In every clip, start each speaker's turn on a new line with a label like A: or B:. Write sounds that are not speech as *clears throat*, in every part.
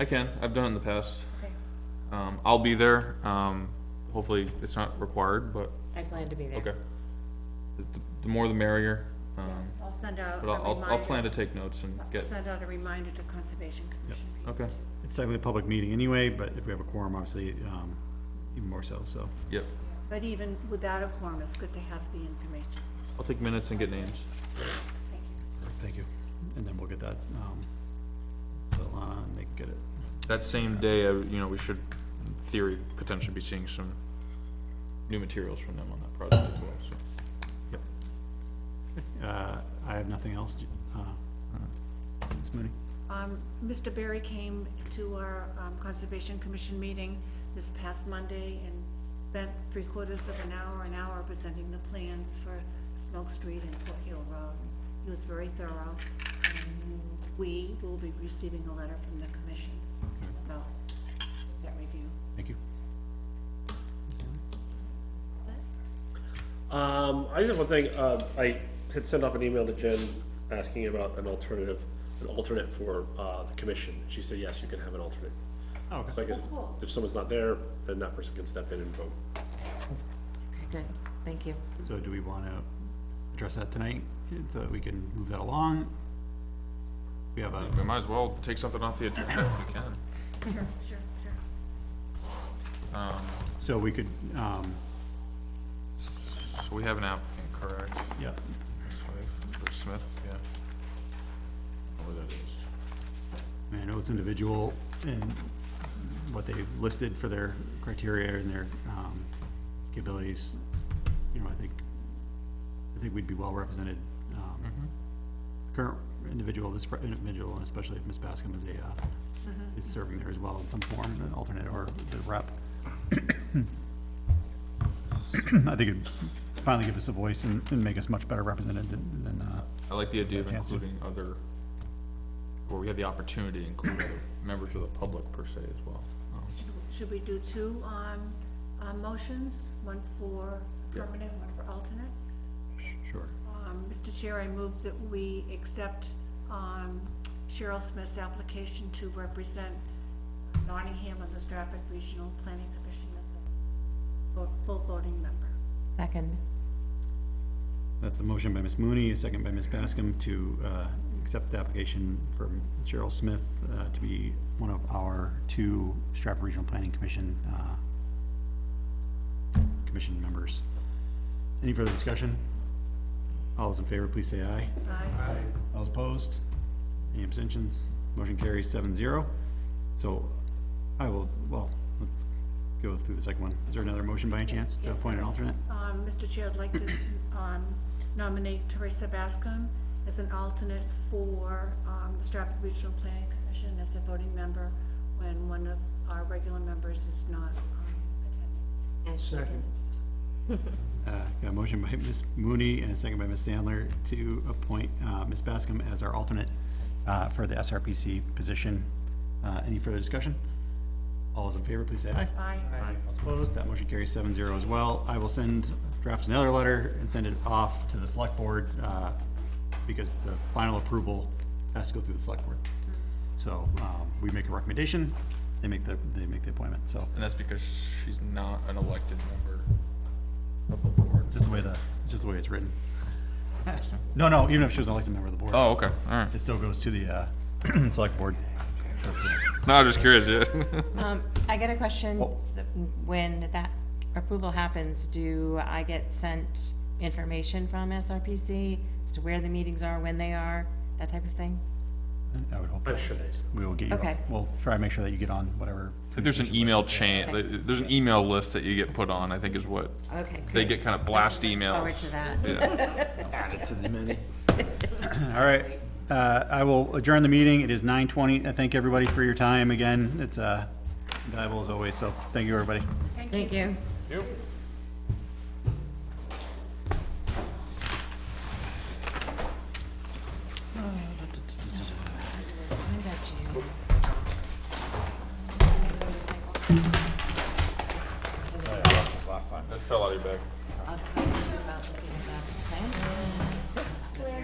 A: I can, I've done it in the past.
B: Okay.
A: Um, I'll be there, um, hopefully it's not required, but,
B: I plan to be there.
A: okay. The- the- The more the merrier, um,
C: I'll send out a
A: but I'll, I'll-
C: reminder.
A: I'll plan to take notes and
C: I'll
A: get,
C: Send out a reminder to Conservation Commission. people.
A: okay,
D: It's technically a public meeting anyway, but if we have a quorum, obviously, um, even more so, so.
A: yep.
C: But even without a quorum, it's good to have the information.
A: I'll take minutes and get names.
C: Thank you.
D: Thank you. And then we'll get that, um, to Alana and they can get it.
A: That same day, I- you know, we should, in theory, potentially be seeing some new materials from them on that project as well, so.
D: Yep. Uh, I have nothing else, uh, Ms. Mooney?
C: Um, Mr. Berry came to our, um, Conservation Commission meeting this past Monday and spent three quarters of an hour, an hour presenting the plans for Smoke Street and Port Hill Road. He was very thorough, and we will be receiving a letter from the commission about that review.
D: Thank you.
C: Is that-
E: Um, I just have one thing. Um, I had sent off an email to Jen asking about an alternative, an alternate for uh, the commission. She said, yes, you can have an alternate. So I guess
C: Oh, cool.
E: if someone's not there, then that person can step in and vote.
B: Okay, good, thank you.
D: So do we want to address that tonight, so that we can move that along? We have a,
A: We might as well take something off the agenda if we can.
C: Sure, sure, sure.
A: Um,
D: so we could, um,
A: so we have an applicant, correct?
D: yeah,
A: His wife, or Smith, yeah. Where that is.
D: I mean, I know it's individual and what they listed for their criteria and their, um, capabilities. You know, I think, I think we'd be well represented, um, current individual, this fr- individual, and especially if Ms. Bascom is a, uh, is serving there as well in some form, an alternate or the rep. *coughs* I think it'd finally give us a voice and, and make us much better represented than, than, uh,
A: I like the idea of
D: Chance to-
A: including other, where we have the opportunity to include other members of the public per se as well. Um,
C: Should we do two on, on motions, one for permanent, one for alternate?
D: sure.
C: Um, Mr. Chair, I move that we accept, um, Cheryl Smith's application to represent Nottingham on the Stratford Regional Planning Commission as a vo- full voting member.
B: Second,
D: That's a motion by Ms. Mooney, a second by Ms. Bascom to uh, accept the application from Cheryl Smith uh, to be one of our two Stratford Regional Planning Commission, uh, commission members. Any further discussion? All those in favor, please say aye.
C: Aye.
D: All those opposed? Any abstentions? Motion carries seven zero. So I will, well, let's go through the second one. Is there another motion by any chance to
C: Yes,
D: appoint an
C: there is.
D: alternate?
C: Um, Mr. Chair, I'd like to, *coughs* um, nominate Teresa Bascom as an alternate for, um, the Stratford Regional Planning Commission as a voting member when one of our regular members is not, um, attending.
D: Uh, Got a motion by Ms. Mooney and a second by Ms. Sandler to appoint uh, Ms. Bascom as our alternate uh, for the SRPC position. Uh, Any further discussion? All those in favor, please say aye.
C: Aye.
D: All opposed, that motion carries seven zero as well. I will send, draft another letter and send it off to the select board uh, because the final approval has to go through the select board. So um, we make a recommendation, they make the, they make the appointment, so
A: And that's because she's not an elected member of the board.
D: just the way the, it's just the way it's written. No, no, even if she was an elected member of the board.
A: Oh, okay, alright.
D: It still goes to the, uh, *clears throat* select board.
A: No, I'm just curious, *laughs* yeah.
B: um, I got a question,
D: Oh.
B: So when that approval happens, do I get sent information from SRPC as to where the meetings are, when they are, that type of thing?
D: I would hope.
E: I'm sure they-
D: We will get you,
B: Okay.
D: on- we'll try and make sure that you get on whatever.
A: There's an email chain, there's an email list that you get put on, I think is what,
B: Okay.
A: they
B: good.
A: get kind of blast
B: Forward
A: emails.
B: to that.
D: All right, uh, I will adjourn the meeting. It is nine twenty. I thank everybody for your time again. It's, uh, valuable as always, so thank you, everybody.
B: Thank you. What about Oh, you?
A: That fell out of your bag.
B: I'll talk to you about looking at that, okay?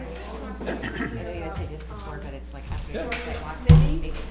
B: I know you would say this before, but it's like after.